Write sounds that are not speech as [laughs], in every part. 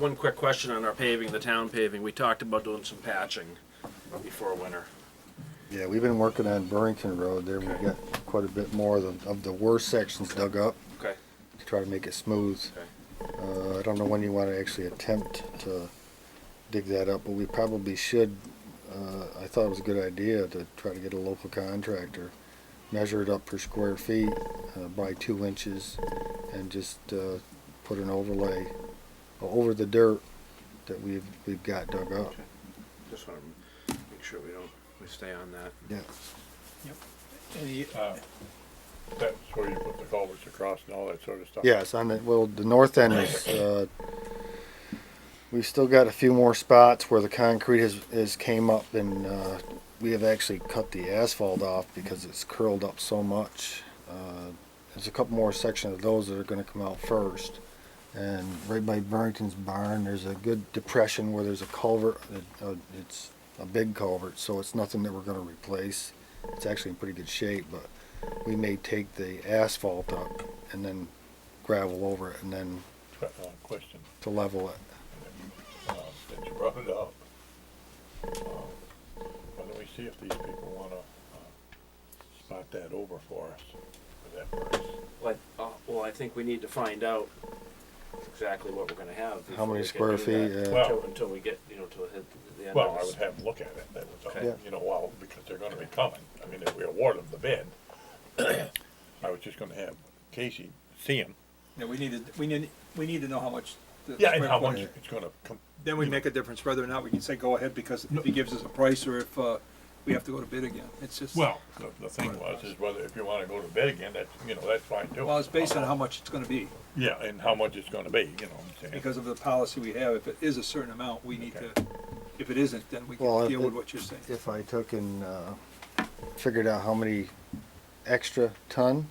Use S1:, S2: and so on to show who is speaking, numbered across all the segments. S1: One quick question on our paving, the town paving. We talked about doing some patching before winter.
S2: Yeah, we've been working on Burrington Road there. We've
S1: Okay.
S2: got quite a bit more of the, of the worst sections dug up
S1: Okay.
S2: to try to make it smooth. Uh, I don't know when you want to actually attempt to dig that up, but we probably should. Uh, I thought it was a good idea to try to get a local contractor, measure it up per square feet uh, by two inches, and just uh, put an overlay over the dirt that we've we've got dug up.
S1: Just want to make sure we don't, we stay on that.
S2: Yeah.
S3: Any,
S4: Uh, That's where you put the culverts across and all that sort of stuff.
S2: Yes, on the, well, the north end is, uh, we've still got a few more spots where the concrete has, has came up and, uh, we have actually cut the asphalt off because it's curled up so much. Uh, There's a couple more sections of those that are gonna come out first. And right by Burrington's barn, there's a good depression where there's a culvert, uh, uh, it's a big culvert, so it's nothing that we're gonna replace. It's actually in pretty good shape, but we may take the asphalt up and then gravel over it and then
S4: Uh, Question,
S2: to level it.
S4: uh, that you brought it up. Uh, Why don't we see if these people wanna, uh, spot that over for us for that price?
S1: Well, I- uh, well, I think we need to find out exactly what we're gonna have.
S2: How
S1: before
S2: many
S1: we can
S2: square
S1: do
S2: feet?
S1: that.
S2: uh,
S4: Well-
S1: Until, until we get, you know, to hit the end
S4: Well,
S1: of
S4: I would
S1: this.
S4: have them look at it, that was
S1: Okay.
S4: all, you know, well, because they're gonna be coming, I mean, if we award them the bid, I was just gonna have Casey see them,
S3: no, we need to, we need, we need to know how much. the
S4: yeah, and
S3: square
S4: how much
S3: footage-
S4: it's gonna come,
S3: Then we make a difference whether or not we can say go ahead because if he gives us a price or if, uh, we have to go to bid again. It's just.
S4: well, the, the thing was, is whether, if you wanna go to bid again, that's, you know, that's fine too.
S3: Well, it's based on how much it's gonna be
S4: Yeah, and how much it's gonna be, you know what I'm saying?
S3: because of the policy we have. If it is a certain amount, we need to, if it isn't, then we
S2: Well,
S3: can
S2: if
S3: deal with
S2: it-
S3: what you're saying.
S2: If I took and uh, figured out how many extra ton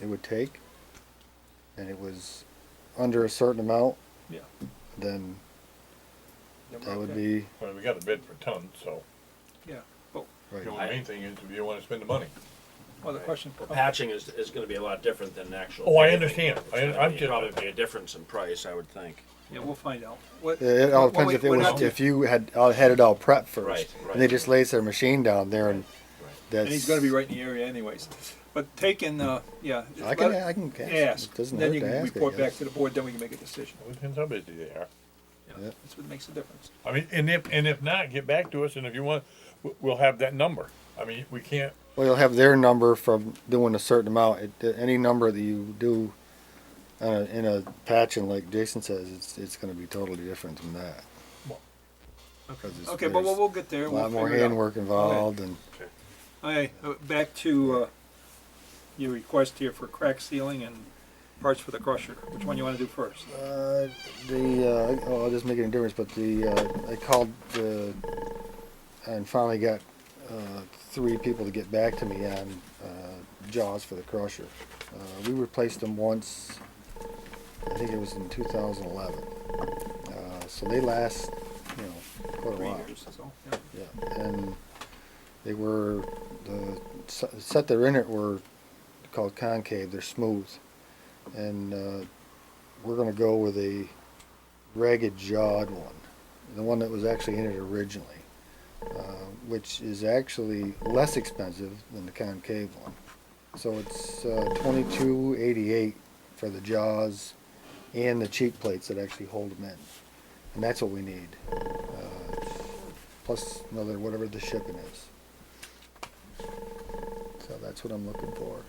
S2: it would take and it was under a certain amount,
S3: Yeah.
S2: then
S3: Then we're
S2: that would
S3: okay.
S2: be,
S4: Well, we got a bid per ton, so,
S3: Yeah, but,
S4: you know,
S2: right,
S4: the main thing is, if you wanna spend the money.
S3: well, the question.
S1: Well, patching is, is gonna be a lot different than actual.
S4: Oh, I
S1: paving.
S4: understand.
S1: It's
S4: I-
S1: gonna
S4: I'm
S1: be-
S4: just-
S1: Probably be a difference in price, I would think.
S3: Yeah, we'll find out. What-
S2: It- it all
S3: well,
S2: depends
S3: we-
S2: if it
S3: we're
S2: was,
S3: not-
S2: if you had, all had it all prepped
S1: Right,
S2: first.
S1: right.
S2: And they just lays their machine down there and that's.
S3: And he's gonna be right in the area anyways. But taking, uh, yeah.
S2: I can, I can ask,
S3: Ask,
S2: it doesn't
S3: then
S2: hurt
S3: you
S2: to
S3: can
S2: ask, I
S3: report back
S2: guess.
S3: to the board, then we can make a decision.
S4: It depends how busy they are.
S3: Yeah,
S2: Yeah.
S3: That's what makes a difference.
S4: I mean, and if, and if not, get back to us, and if you want, we- we'll have that number. I mean, we can't,
S2: Well, you'll have their number from doing a certain amount. It, any number that you do uh, in a patch, and like Jason says, it's it's going to be totally different than that.
S4: Well,
S2: 'Cause it's-
S3: Okay, but we'll,
S2: there's
S3: we'll get there.
S2: a
S3: we'll
S2: lot more
S3: figure it out.
S2: handwork involved, and
S3: Okay, uh, back to, uh, your request here for crack sealing and parts for the crusher. Which one you wanna do first?
S2: uh, the uh, oh, it doesn't make any difference. But the uh, I called the and finally got uh, three people to get back to me on uh, jaws for the crusher. Uh, we replaced them once. I think it was in 2011. Uh, so they last, you know, quite a
S3: Three
S2: while.
S3: years, so, yeah.
S2: Yeah, and they were the se- set they're in it were called concave. They're smooth, and uh, we're gonna go with a ragged jawed one, the one that was actually in it originally, uh, which is actually less expensive than the concave one. So it's uh, twenty two eighty eight for the jaws and the cheek plates that actually hold them in, and that's what we need. Uh, plus another whatever the shipping is. So that's what I'm looking for.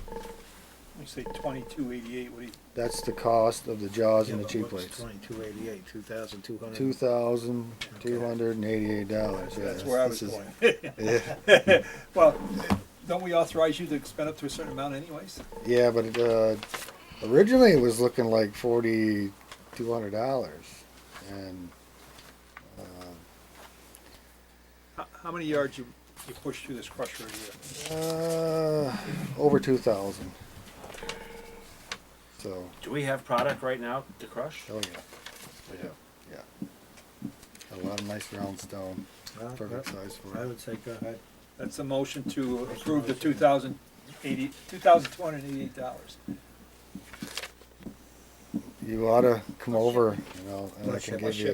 S3: You say twenty-two eighty-eight, what do you,
S2: That's the cost of the jaws
S5: Yeah,
S2: and the
S5: but
S2: cheap
S5: what's
S2: plates.
S5: Twenty-two eighty-eight, two thousand two hundred.
S2: Two thousand two hundred and eighty-eight dollars.
S3: that's, that's where I was going.
S2: [laughs] Yeah,
S3: [laughs] Well, don't we authorize you to spend up to a certain amount anyways?
S2: yeah, but uh, originally it was looking like forty-two hundred dollars, and
S3: How, how many yards you, you push through this crusher a year?
S2: uh, over two thousand. So,
S1: Do we have product right now to crush?
S2: oh yeah,
S1: do.
S2: yeah, a lot of nice round stone, perfect size for it.
S5: I would say go ahead.
S3: That's a motion to approve the two thousand eighty, two thousand two hundred and eighty-eight dollars.
S2: You oughta come over, you know, and I
S5: Let's
S2: can
S5: ship-
S2: give you a